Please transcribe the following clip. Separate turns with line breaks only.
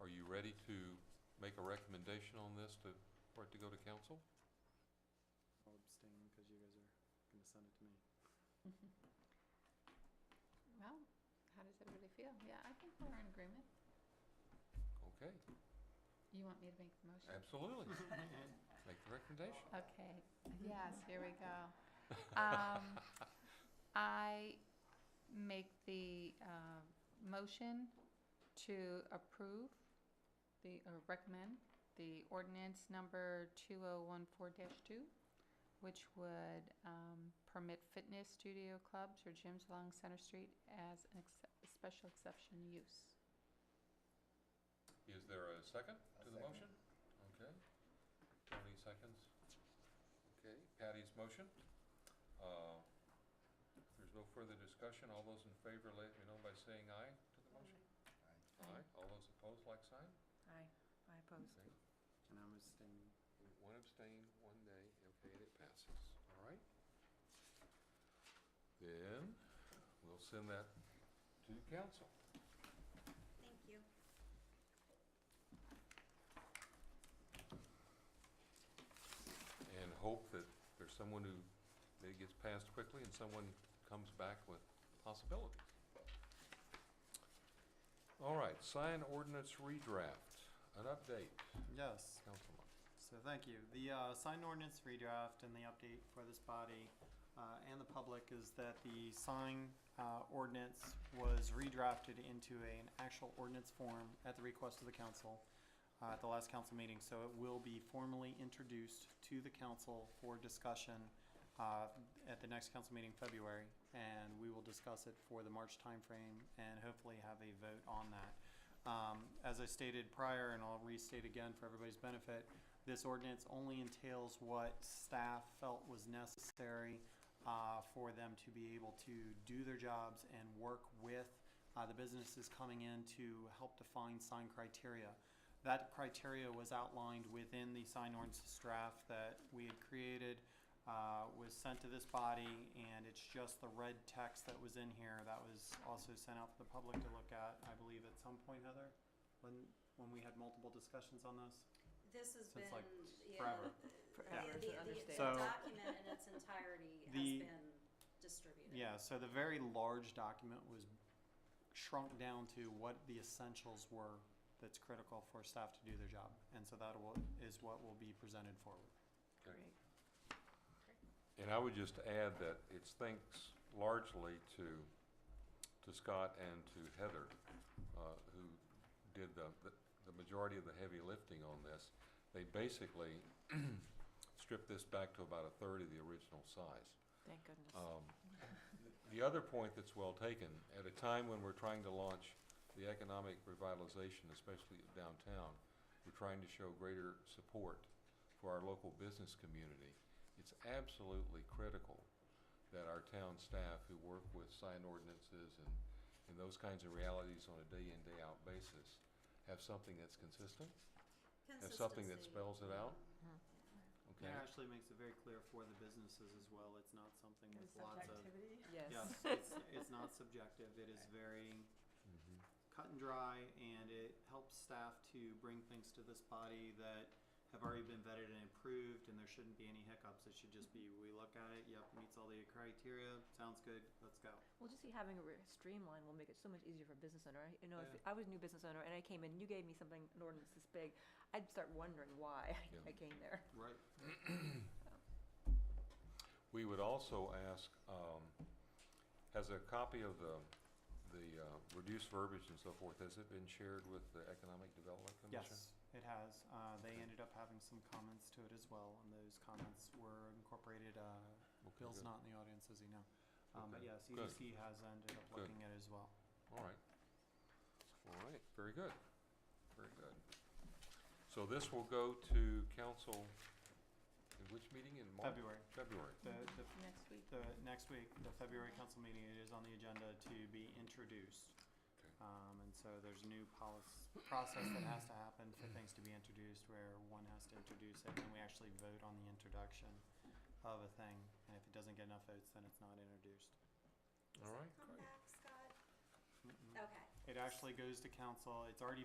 Are you ready to make a recommendation on this to, for it to go to council?
I'll abstain because you guys are going to send it to me.
Well, how does everybody feel? Yeah, I think we're in agreement.
Okay,
You want me to make the motion?
absolutely. Make the recommendation.
Okay, yes, here we go. Um, I make the uh, motion to approve the, or recommend the ordinance number 2014-2, which would um, permit fitness studio clubs or gyms along Center Street as an excep- a special exception use.
Is there a second
A
to the
second.
motion? Okay. Tony seconds. Okay, Patty's motion. Uh, If there's no further discussion, all those in favor, let me know by saying aye to the motion.
Aye.
Aye. All those opposed, like sign?
Aye, I oppose.
Okay.
And I'm abstaining.
One abstain, one nay, okay, and it passes, all right? Then, we'll send that to council.
Thank you.
and hope that there's someone who, that it gets passed quickly and someone comes back with possibilities. All right, sign ordinance redraft, an update,
Yes.
Councilman.
So thank you. The uh, sign ordinance redraft and the update for this body uh, and the public is that the sign uh, ordinance was redrafted into an actual ordinance form at the request of the council uh, at the last council meeting. So it will be formally introduced to the council for discussion uh, at the next council meeting, February, and we will discuss it for the March timeframe and hopefully have a vote on that. Um, As I stated prior, and I'll restate again for everybody's benefit, this ordinance only entails what staff felt was necessary uh, for them to be able to do their jobs and work with uh, the businesses coming in to help define sign criteria. That criteria was outlined within the sign ordinance draft that we had created, uh, was sent to this body, and it's just the red text that was in here that was also sent out for the public to look at, I believe, at some point, Heather, when, when we had multiple discussions on this.
This has been,
Since, like,
yeah,
forever.
yeah,
Forever
the,
is an
the, the
understatement.
So-
document in its entirety has
The-
been distributed.
Yeah, so the very large document was shrunk down to what the essentials were that's critical for staff to do their job. And so that will, is what will be presented forward.
Great.
And I would just add that it's thanks largely to, to Scott and to Heather, uh, who did the, the- the majority of the heavy lifting on this. They basically stripped this back to about a third of the original size.
Thank goodness.
Um, The other point that's well taken, at a time when we're trying to launch the economic revitalization, especially of downtown, we're trying to show greater support for our local business community. It's absolutely critical that our town staff who work with sign ordinances and, and those kinds of realities on a day-in, day-out basis have something that's consistent, have something that
Consistency.
spells it out,
Mhm.
It
okay?
actually makes it very clear for the businesses as well. It's not something with lots of.
Yes.
Yes, it's, it's not subjective. It is very
Mhm.
cut and dry and it helps staff to bring things to this body that have already been vetted and approved and there shouldn't be any hiccups. It should just be, we look at it, yep, meets all the criteria, sounds good, let's go.
Well, just see, having a re- streamline will make it so much easier for a business owner. I- You know,
Yeah.
if I was a new business owner and I came in, you gave me something, an ordinance this big, I'd start wondering why
Yeah.
I came there.
Right.
We would also ask, um, has a copy of the, the uh, reduced verbiage and so forth, has it been shared with the Economic Development Commission?
Yes, it has. Uh, they ended up having some comments to it as well and those comments were incorporated. Uh,
Okay,
Bill's
good.
not in the audience, is he now? Um, but
Okay,
yes,
good.
EDC has ended up
Good.
looking at it as well.
All right. All right, very good, very good. So this will go to council, in which meeting in March?
February,
February.
the, the
Next week.
The next week, the February council meeting, it is on the agenda to be introduced.
Okay.
Um, and so there's a new policy, process that has to happen for things to be introduced, where one has to introduce it, and we actually vote on the introduction of a thing, and if it doesn't get enough votes, then it's not introduced.
All right.
Come back, Scott.
Mm-mm.
Okay.
It actually goes to council, it's already